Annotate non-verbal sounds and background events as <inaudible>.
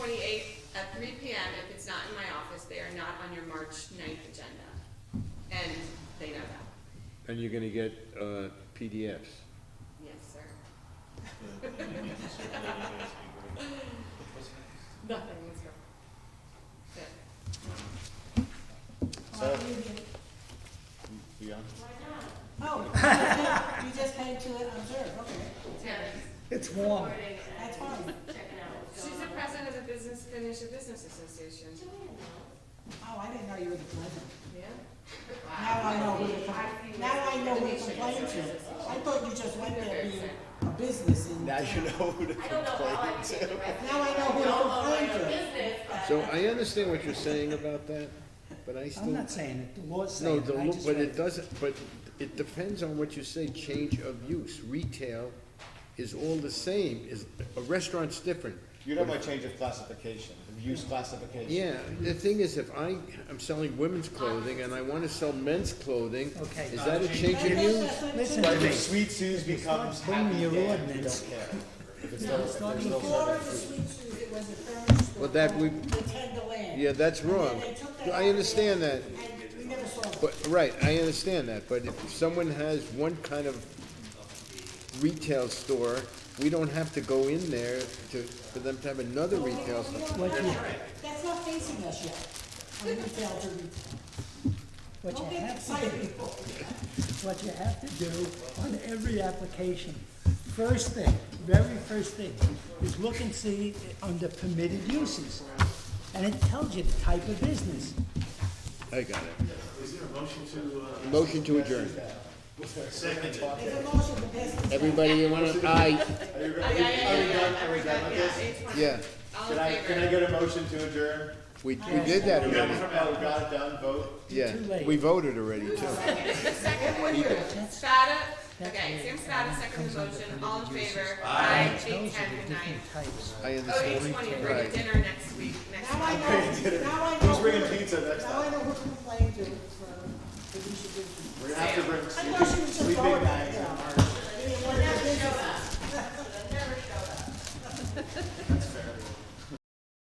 And you're gonna get, uh, PDFs. Yes, sir. Sounds Nothing, let's go. Yeah. So- Beyond. Oh, you just came to observe, okay, It's warm. Recording and that's fine. Checking uh, out what's She's going the on. president of the Business, Financial Business Association. Joanne, Oh, I didn't know you were the president. Yeah. Wow. Now I know who to, I com- see now what- I know who I to complain to. I thought you just went there being a business and. Now you know who to don't know how I complain became the to. president. Now I know who to Don't know my complain to. own business, but. So I understand what you're saying about that, but I still. I'm not saying it, the law's saying No, it, the, I lo- just but read it doesn't, but it depends on what you say, change of use. Retail is all the same, is, a restaurant's different. You know my change of classification, of use classification. Yeah, the thing is, if I, I'm selling women's clothing and I wanna sell men's clothing, Okay. is that a change of That's- use? that's- Listen But to if me, Sweet Sue's becomes not bringing Happy your Dan, we ordinance. don't care. If it's those- if there's <laughs> those Florida other Sweet foods. Shoes, it was a furniture store. Well, that we- called The Tenderland. Yeah, that's And then wrong. they took that out I of understand there, that, And we never saw it. but, right, I understand that, but if someone has one kind of retail store, we don't have to go in there to, for them to have another retail store. What you- That's not facing us yet. I mean, we failed to retail. what you Don't get have to excited. do, what you have to do on every application, first thing, very first thing, is look and see under permitted uses. And it tells you the type of business. I got it. Motion to adjourn. It's a motion to pass consent. Everybody, you wanna, aye, Are you, Yeah, ready? yeah, are yeah, we done, yeah, are we done with yeah, this? 8:20. yeah, All Can in I, can I favor? get a motion to adjourn? we, we did that Oh, already, we got it done, vote. yeah, Too late. we voted already too. Spada, okay, Sam Spada, second the motion, all in favor? Aye. Eight, Tells you ten, the good night. different types. I Oh, understand. eight twenty, we're at Right. dinner next week, next Now I month. know, now I know. Who's bringing who- uh, pizza next Now I time? know who to complain to for, for these issues. We're gonna have to bring. I thought